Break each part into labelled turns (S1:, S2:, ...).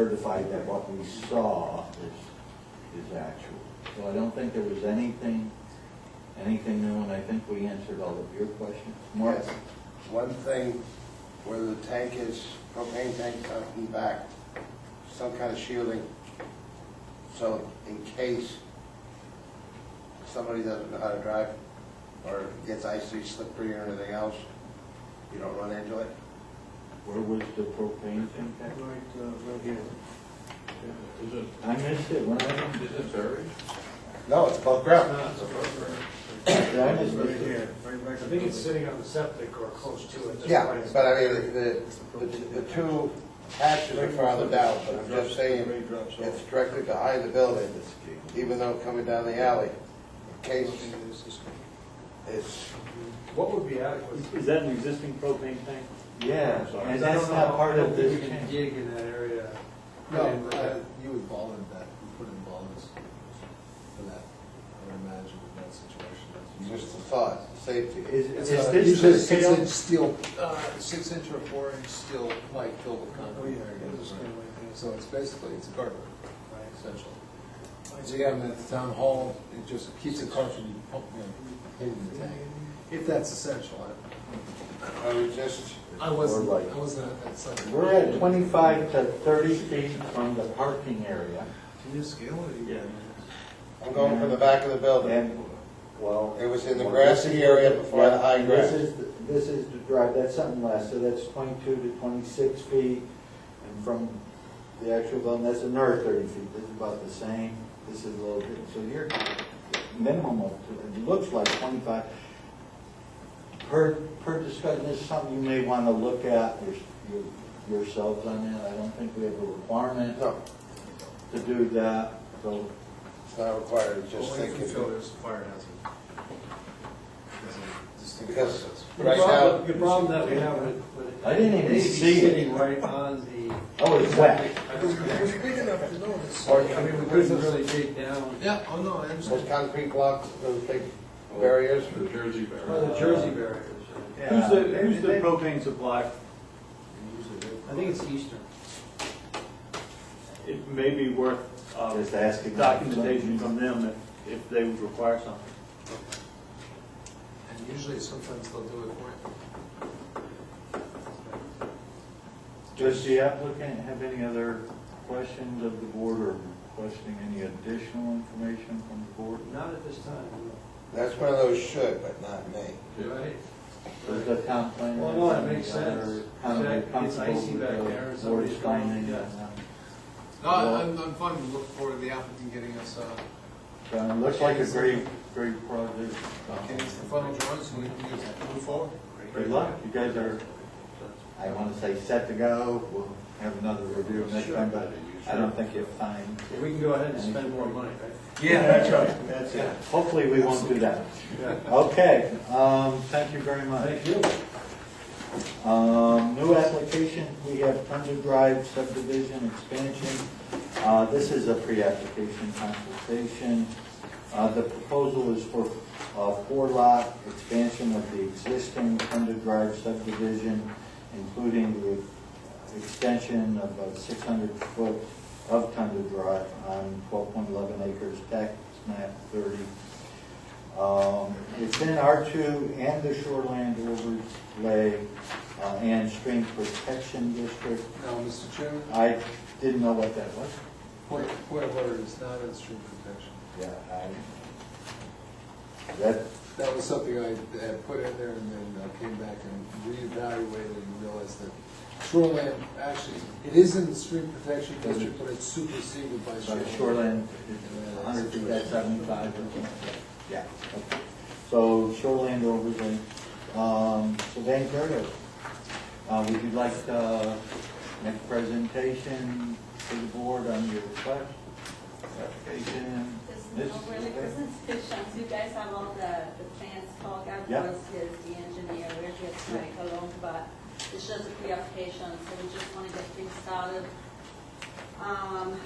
S1: certified that what we saw is, is actual. So I don't think there was anything, anything new, and I think we answered all of your questions. Mark?
S2: Yes, one thing where the tank is, propane tank coming back, some kind of shielding. So in case somebody doesn't know how to drive or gets icy, slippery or anything else, you don't run into it.
S1: Where was the propane tank
S3: Right,
S1: at?
S3: uh, right here.
S4: Is it,
S1: I missed it, when I,
S4: is it buried?
S2: No, it's above ground.
S3: Uh,
S1: did I miss
S3: Right
S1: it?
S3: here, right back.
S5: I think it's sitting on the septic or close to it.
S2: Yeah, but I mean, the, the, the two hatches are farther down, but I'm just saying, it's directly behind the building, even though coming down the alley. In case it's
S5: What would be adequate?
S6: Is that an existing propane tank?
S1: Yeah,
S5: I
S1: and
S5: don't
S1: that's
S5: know
S1: not part
S5: how
S1: of
S5: deep
S1: this
S5: You can
S1: tank.
S5: dig in that area.
S7: No,
S5: And,
S7: uh,
S5: uh,
S7: you would ball in that, you put in ballers for that, I would imagine in that situation. that's-
S2: Just a thought, safety.
S1: Is,
S7: It's
S1: is
S7: a-
S1: this
S7: usually
S1: the
S7: a six
S1: scale?
S7: inch steel, uh, six inch or four inch steel pipe filled with
S5: Oh,
S7: concrete.
S5: yeah, it's just gonna
S7: Right.
S5: wait there.
S7: So it's basically, it's a garden,
S5: Right.
S7: essentially. So you have them at the town hall, it just keeps the car from pumping, you know, hitting the tank, if that's essential. I-
S2: I would just,
S7: I wasn't, I wasn't at that site.
S1: We're at twenty-five to thirty feet from the parking area,
S3: Can you scale it again?
S2: I'm going from the back of the building.
S1: and, well.
S2: It was in the
S1: well,
S2: grassy
S1: this is-
S2: area before the
S1: yeah,
S2: high grass.
S1: This is, the- this is the drive, that's something less, so that's twenty-two to twenty-six feet, and from the actual building, that's another thirty feet, this is about the same, this is a little bit, so you're minimum of, it looks like twenty-five. Per, per discussion, this is something you may want to look at your- your- yourselves on that, I don't think we have a requirement
S2: No,
S1: to do that, so
S2: it's not required, it's just
S7: Only if Oh, you feel
S2: thinking.
S7: there's a fire hazard. There's a distinct
S2: Because
S7: fire hazard.
S5: The
S2: right
S5: problem-
S2: now,
S5: The problem that we have with, with.
S1: I didn't even
S5: it is
S1: see it.
S5: Sitting right on the.
S1: Oh, it's wet.
S5: I
S7: big enough to notice.
S5: mean, we couldn't really dig down.
S7: Yeah, oh no, I understand.
S2: those concrete blocks, those big barriers.
S4: The
S7: Oh.
S4: Jersey
S5: Well,
S4: buried.
S5: the Jersey barriers.
S6: Who's the, who's the propane supply?
S5: I think it's Eastern.
S6: It may be worth uh,
S1: Just asking.
S6: documentation from them if, if they would require something.
S7: And usually sometimes they'll do it for you.
S1: Does the applicant have any other questions of the board or requesting any additional information from the board?
S5: Not at this time,
S2: That's one of those should, but not may.
S5: no. Right?
S1: Does the town plan?
S5: Well, no, it makes sense.
S1: Or kind of
S5: It's
S1: comfortable
S5: icy
S1: with
S5: back
S1: the
S5: there, and
S1: board's
S5: somebody's trying to
S1: finding
S5: get-
S1: and, uh,
S7: No, I- I'm, I'm fine, we look forward to the applicant getting us, uh,
S1: so It looks like a great, great project.
S7: getting us the final drawings, so we can use it, move forward.
S1: Good luck, you guys are, I want to say set to go, we'll have another review next time, but I don't think you'll find.
S5: We can go ahead and spend more money, right?
S1: Yeah, that's right, that's it. Hopefully, we won't do that. Okay, um, thank you very much.
S5: Thank you.
S1: Um, new application, we have Thunder Drive subdivision expansion. Uh, this is a pre-application consultation. Uh, the proposal is for, uh, four lot expansion of the existing Thunder Drive subdivision, including the extension of a six hundred foot of Thunder Drive on twelve point eleven acres, tax map thirty, um, It's in R2 and the shoreland overlay uh, and stream protection district.
S7: Now, Mr. Chairman,
S1: I didn't know what that was.
S7: point, point of order is not in stream protection.
S1: Yeah, I, that,
S7: That was something I had put in there and then uh, came back and reevaluated and realized that shoreline, actually, it is in the stream protection district, but it's superseded by
S1: by
S7: shoreline.
S1: shoreland, it's 100 feet, that's 75 or something. Yeah. okay. So shoreland overlay. Um, So Van Gogh, uh would you like to make a presentation to the board on your request? Application?
S8: Just
S1: Ms.
S8: overly presentation, you guys have all the, the plans talk
S1: Yeah.
S8: afterwards, here's the engineer, we're here trying along, but it's just a pre-application, so we just want to get things started. Um,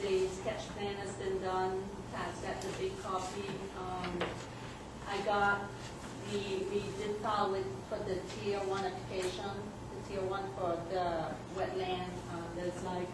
S8: the sketch plan has been done, Pat's got the big copy, um, I got, we, we did file with, for the tier one application, the tier one for the wetland, um, there's like